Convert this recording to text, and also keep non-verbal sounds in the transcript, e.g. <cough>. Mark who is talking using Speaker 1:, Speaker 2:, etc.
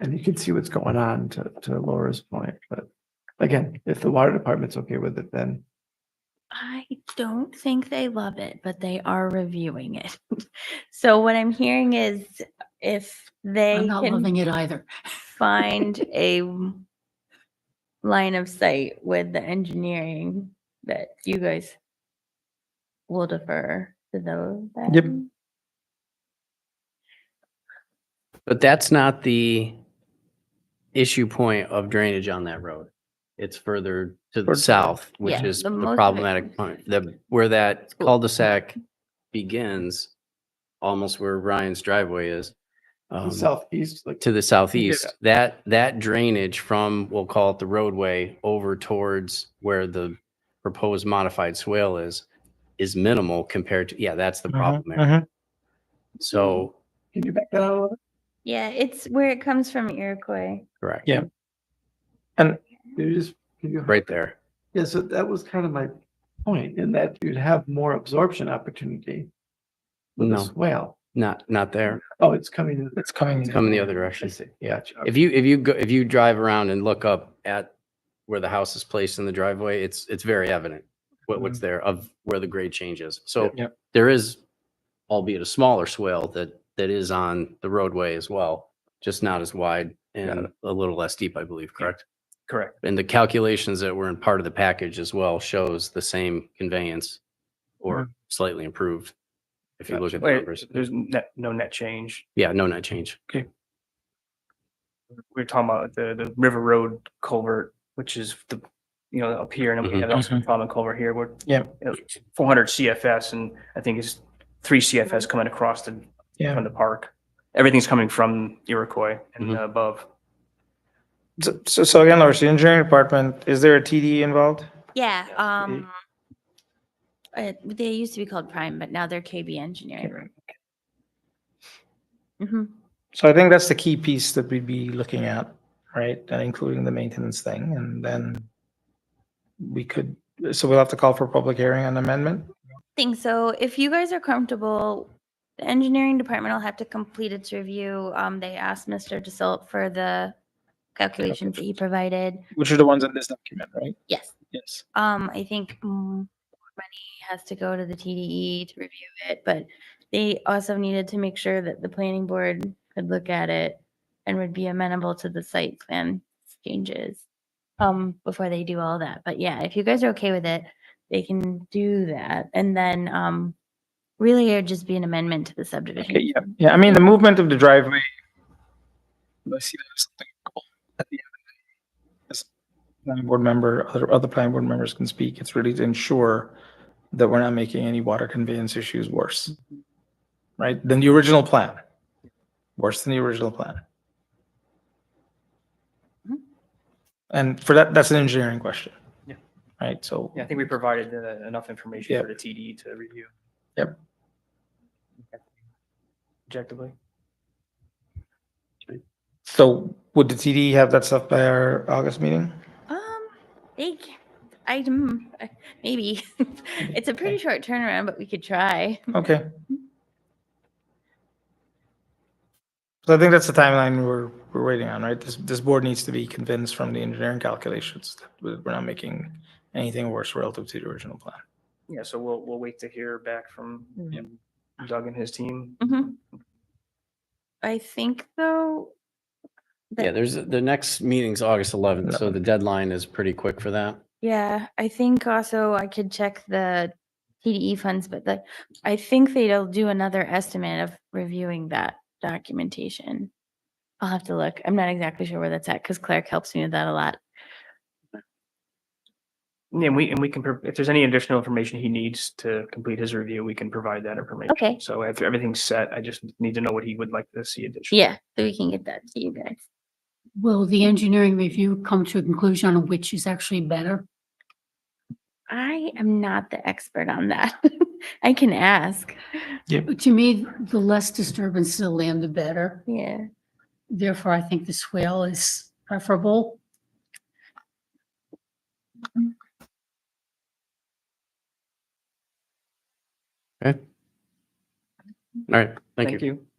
Speaker 1: And you can see what's going on to, to Laura's point, but again, if the water department's okay with it, then
Speaker 2: I don't think they love it, but they are reviewing it. <laughs> so what I'm hearing is if they
Speaker 3: I'm not
Speaker 2: can
Speaker 3: loving it either.
Speaker 2: find
Speaker 3: <laughs>
Speaker 2: a m- line of sight with the engineering that you guys will defer to those.
Speaker 1: Yep.
Speaker 2: then?
Speaker 4: But that's not the issue point of drainage on that road. It's further to the
Speaker 1: Towards-
Speaker 4: south, which
Speaker 2: Yeah,
Speaker 4: is
Speaker 2: the
Speaker 4: the
Speaker 2: most of it-
Speaker 4: problematic point, the, where that
Speaker 2: School.
Speaker 4: cul-de-sac begins, almost where Ryan's driveway is.
Speaker 1: the
Speaker 4: um,
Speaker 1: southeast, like,
Speaker 4: to the southeast, that, that drainage from, we'll call it the roadway, over towards where the proposed modified swale is, is minimal compared to, yeah, that's the
Speaker 1: Uh-huh,
Speaker 5: Uh-huh,
Speaker 4: problem area. So,
Speaker 1: can you back that out a little bit?
Speaker 2: Yeah, it's where it comes from Iroquois.
Speaker 4: correct,
Speaker 1: Yeah. And you just, can you?
Speaker 4: right there.
Speaker 1: Yeah, so that was kind of my point in that you'd have more absorption opportunity with a
Speaker 4: No.
Speaker 1: swale.
Speaker 4: Not, not there.
Speaker 1: Oh, it's coming. in-
Speaker 5: It's coming.
Speaker 4: It's coming the other
Speaker 1: I
Speaker 4: direction.
Speaker 1: see.
Speaker 4: Yeah.
Speaker 1: Gotcha.
Speaker 4: If you, if you go, if you drive around and look up at where the house is placed in the driveway, it's, it's very evident what,
Speaker 5: Mm-hmm.
Speaker 4: what's there of where the grade change is. So
Speaker 5: Yep.
Speaker 4: there is, albeit a smaller swale that, that is on the roadway as well, just not as wide and a little less deep, I believe, correct?
Speaker 5: Correct.
Speaker 4: And the calculations that were in part of the package as well shows the same conveyance or slightly improved. If you look at the
Speaker 5: Mm-hmm. Wait,
Speaker 4: numbers.
Speaker 5: There's net, no net change.
Speaker 4: Yeah, no net change.
Speaker 5: We were talking about the, the River Road culvert, which is the, you know, up here and then we
Speaker 4: Mhm.
Speaker 5: have also common culvert here. We're.
Speaker 1: Yeah.
Speaker 5: Four hundred CFS and I think it's three CFS coming across the,
Speaker 1: Yeah.
Speaker 5: from the park. Everything's coming from Iroquois and
Speaker 4: Mhm.
Speaker 5: above.
Speaker 6: So- So, so again, Lars, the engineering department, is there a TD involved?
Speaker 2: Yeah.
Speaker 5: Yes,
Speaker 2: Um, uh, they used to be called Prime, but now they're KB Engineering. hmm
Speaker 6: So I think that's the key piece that we'd be looking at, right? And including the maintenance thing, and then we could, so we'll have to call for a public hearing on amendment?
Speaker 2: think so. If you guys are comfortable, the engineering department will have to complete its review. Um, they asked Mr. DeSilt for the calculations that he provided.
Speaker 6: Which are the ones in this document, right?
Speaker 2: Yes.
Speaker 6: Yes.
Speaker 2: Um, I think mm, more money has to go to the TDE to review it, but they also needed to make sure that the planning board could look at it and would be amenable to the site plan changes um, before they do all that. But yeah, if you guys are okay with it, they can do that. And then um, really it would just be an amendment to the subdivision.
Speaker 6: Okay, yeah, yeah, I mean, the movement of the driveway. I see that as something cool at the end. of the day. As a Planning board member, other, other planning board members can speak, it's really to ensure that we're not making any water conveyance issues worse.
Speaker 5: Mm-hmm.
Speaker 6: Right, than the original plan, worse than the original plan.
Speaker 2: Mhm.
Speaker 6: And for that, that's an engineering question.
Speaker 5: Mm-hmm. Yeah.
Speaker 6: Right, so.
Speaker 5: Yeah, I think we provided uh, enough information
Speaker 6: Yeah.
Speaker 5: for the TD to review.
Speaker 6: Yep.
Speaker 5: Objectively.
Speaker 6: So would the TD have that stuff by our August meeting?
Speaker 2: Um, they, c- I, mm, uh, maybe. <laughs> It's a pretty short turnaround, but we could try.
Speaker 6: Okay. So I think that's the timeline we're, we're waiting on, right? This, this board needs to be convinced from the engineering calculations that we- we're not making anything worse relative to the original plan.
Speaker 5: Yeah, so we'll, we'll wait to hear back from
Speaker 2: Yep.
Speaker 5: Doug and his team.
Speaker 2: Mhm. I think though. that-
Speaker 4: Yeah, there's, the next meeting's August 11th, so the deadline is pretty quick for that.
Speaker 2: Mm-hmm. Yeah, I think also I could check the TDE funds, but the, I think they'll do another estimate of reviewing that documentation. I'll have to look. I'm not exactly sure where that's at because Clark helps me with that a lot.
Speaker 5: Yeah, And we, and we can, pro- if there's any additional information he needs to complete his review, we can provide that information.
Speaker 2: Okay.
Speaker 5: So after everything's set, I just need to know what he would like to see additional.
Speaker 2: Yeah, so we can get that to you guys.
Speaker 3: Will the engineering review come to a conclusion on which is actually better?
Speaker 2: I am not the expert on that. <laughs> I can ask.
Speaker 3: To me, the less disturbance to the land, the better.
Speaker 2: Yeah.
Speaker 3: Therefore, I think the swale is preferable.
Speaker 4: All right, thank you.
Speaker 5: you.